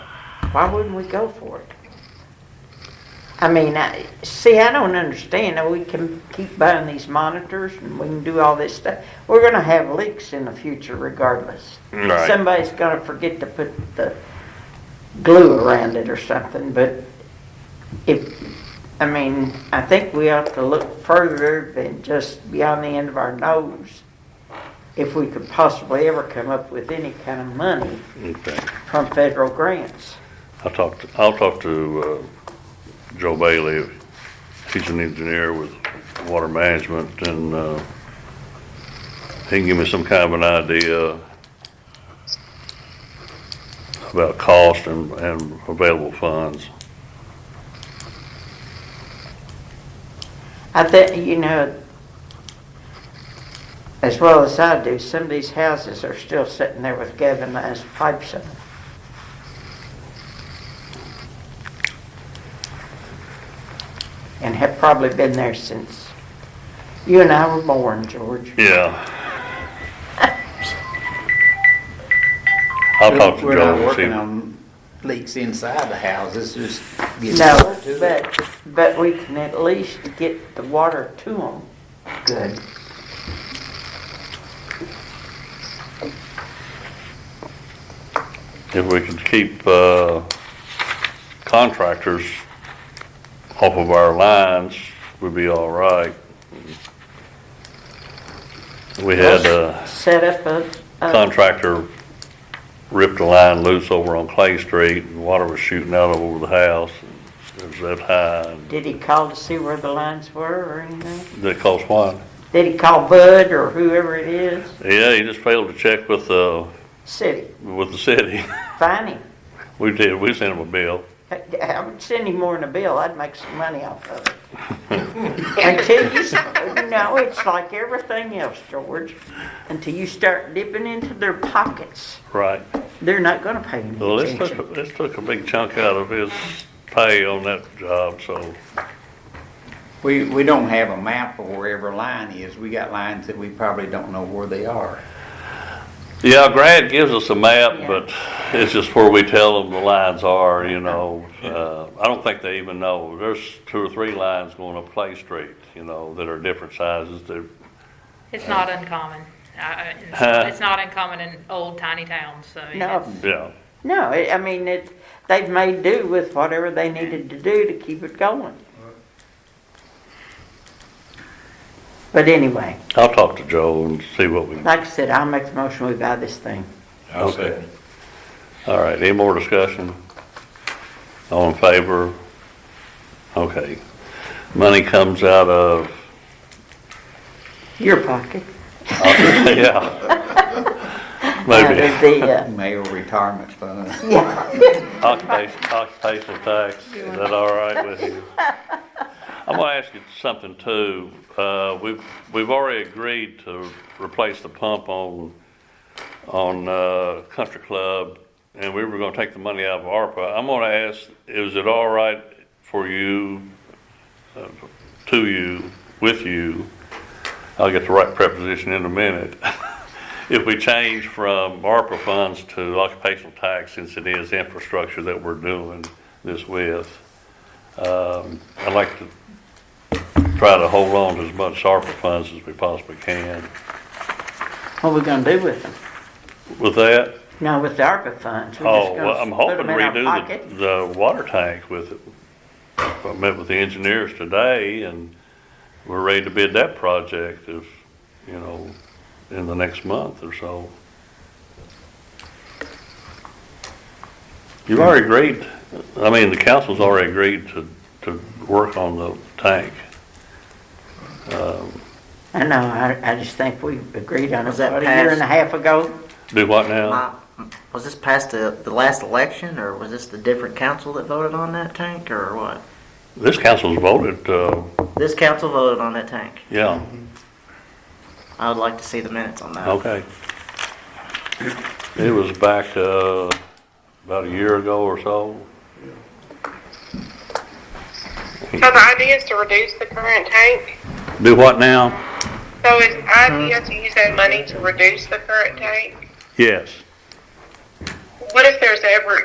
Why wouldn't we go for it? I mean, I, see, I don't understand. Now, We can keep buying these monitors and we can do all this stuff. We're gonna have leaks in the future regardless. Right. Somebody's gonna forget to put the glue around it or something, but if, I mean, I think we ought to look further than just beyond the end of our nose. If we could possibly ever come up with any kind of money Okay. from federal grants. I'll talk, to- I'll talk to uh, Joe Bailey. He's an engineer with water management and uh, he can give me some kind of an idea about cost and, and available funds. I think, you know, as well as I do, some of these houses are still sitting there with galvanized pipes in them. And have probably been there since you and I were born, George. Yeah. I'll talk to We're not Joe and working see. on leaks inside the houses, just getting. No, to it. but, but we can at least get the water to them good. If we could keep uh, contractors off of our lines, we'd be all right. We had a Set up a, a contractor ripped a line loose over on Clay Street, and water was shooting out over the house. It was that high, and Did he call to see where the lines were or anything? that caused what? Did he call Bud or whoever it is? Yeah, he just failed to check with the, City, with the city. fine him. We did, we sent him a bill. I I would send him more than a bill, I'd make some money off of it. Until you, s- no, it's like everything else, George. Until you start dipping into their pockets, Right. they're not gonna pay any Well, this took, attention. a- this took a big chunk out of his pay on that job, so, We, we don't have a map of where every line is. We got lines that we probably don't know where they are. yeah, Grant gives us a map, Yeah. but it's just where we tell them the lines are, you know. Uh, I don't think they even know, there's two or three lines going up Clay Street, you know, that are different sizes, they're, It's not uncommon. I- Huh? I- It's not uncommon in old tiny towns, so. I mean, No, it's- yeah. no, I I mean, it, they've made do with whatever they needed to do to keep it going. But anyway. I'll talk to Joe and see what we, Like I said, I'll make the motion, we buy this thing. okay. All right, any more discussion? All in favor? Okay. Money comes out of Your pocket. Yeah. Maybe. Out of the, uh, Mayor retirement fund. Yeah, Occupation, occupational tax, is that all right with you? I'm gonna ask you something too. Uh, we've, we've already agreed to replace the pump on, on, uh, Country Club, and we were gonna take the money out of ARPA. I'm gonna ask, is it all right for you, uh, to you, with you? I'll get the right preposition in a minute. If we change from ARPA funds to occupational tax, since it is infrastructure that we're doing this with, um, I'd like to try to hold on to as much ARPA funds as we possibly can. what we gonna do with them? With that, No, with the ARPA funds. we're just oh, gonna well, I'm put them hoping to in our redo pocket. the, the water tank with it. I met with the engineers today and we're ready to bid that project if, you know, in the next month or so. You've already agreed, I mean, the council's already agreed to, to work on the tank. I know, I, I just think we agreed on it, Was that about a year and a passed? half ago. Do what now? My- Was this past the, the last election, or was this the different council that voted on that tank, or what? This council's voted, uh, This council voted on that tank. yeah, I would like to see the minutes on that. okay. It was back, uh, about a year ago or so. So the idea is to reduce the current tank. Do what now? So is the idea to use that money to reduce the current tank? Yes. What if there's ever